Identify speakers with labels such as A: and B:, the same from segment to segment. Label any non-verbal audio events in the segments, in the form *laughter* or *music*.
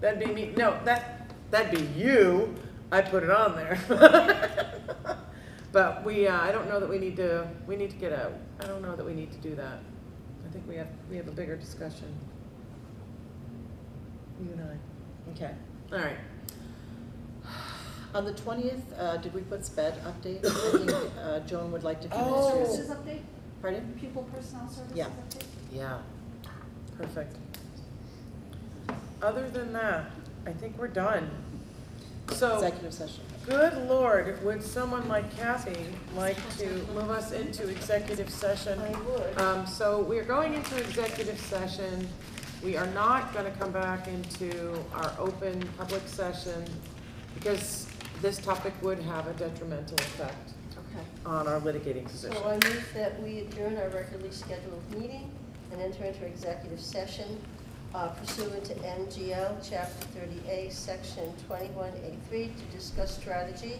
A: That'd be me, no, that, that'd be you, I put it on there. *laughs* But we, uh, I don't know that we need to, we need to get a, I don't know that we need to do that. I think we have, we have a bigger discussion. You and I,
B: Okay.
A: all right.
B: On the twentieth, uh, did we put sped update? I think, uh, Joan would like to do
A: Oh.
B: ministries.
C: Services update,
B: Pardon?
C: pupil personnel services
B: Yeah.
C: update.
A: Yeah, perfect. Other than that, I think we're done. So,
B: Executive session.
A: good lord, would someone like Kathy like to move us into executive session?
C: would.
A: Um, so we're going into executive session. We are not gonna come back into our open public session because this topic would have a detrimental effect
D: Okay,
A: on our litigating
D: so
A: position.
D: I move that we adjourn our regularly scheduled meeting and enter into executive session uh, pursuant to MGL Chapter 30A, Section 21A3, to discuss strategy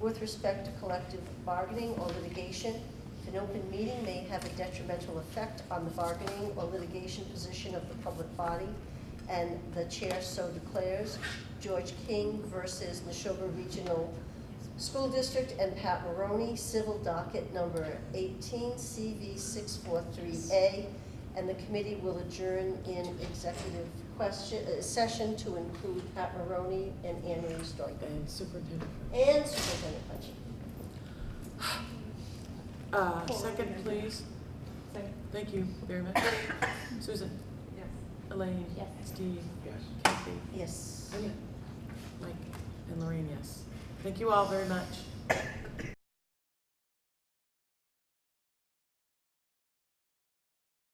D: with respect to collective bargaining or litigation. If An open meeting may have a detrimental effect on the bargaining or litigation position of the public body, and the chair so declares. George King versus Neshoba Regional School District and Pat Maroney, civil docket number 18 CV 643A, and the committee will adjourn in executive question, uh, session to include Pat Maroney and Anne Marie Stoica,
A: And superintendent.
D: and Superintendent Punchak.
A: Uh,
C: Hold on,
A: second,
C: yeah.
A: please.
C: Second.
A: Thank you very
C: *coughs*
A: much. Susan,
C: Yes.
A: Elaine,
C: Yes.
A: Steve,
E: Yes.
A: Kathy,
D: Yes.
A: Mike, and Lorraine, yes. Thank you all very much.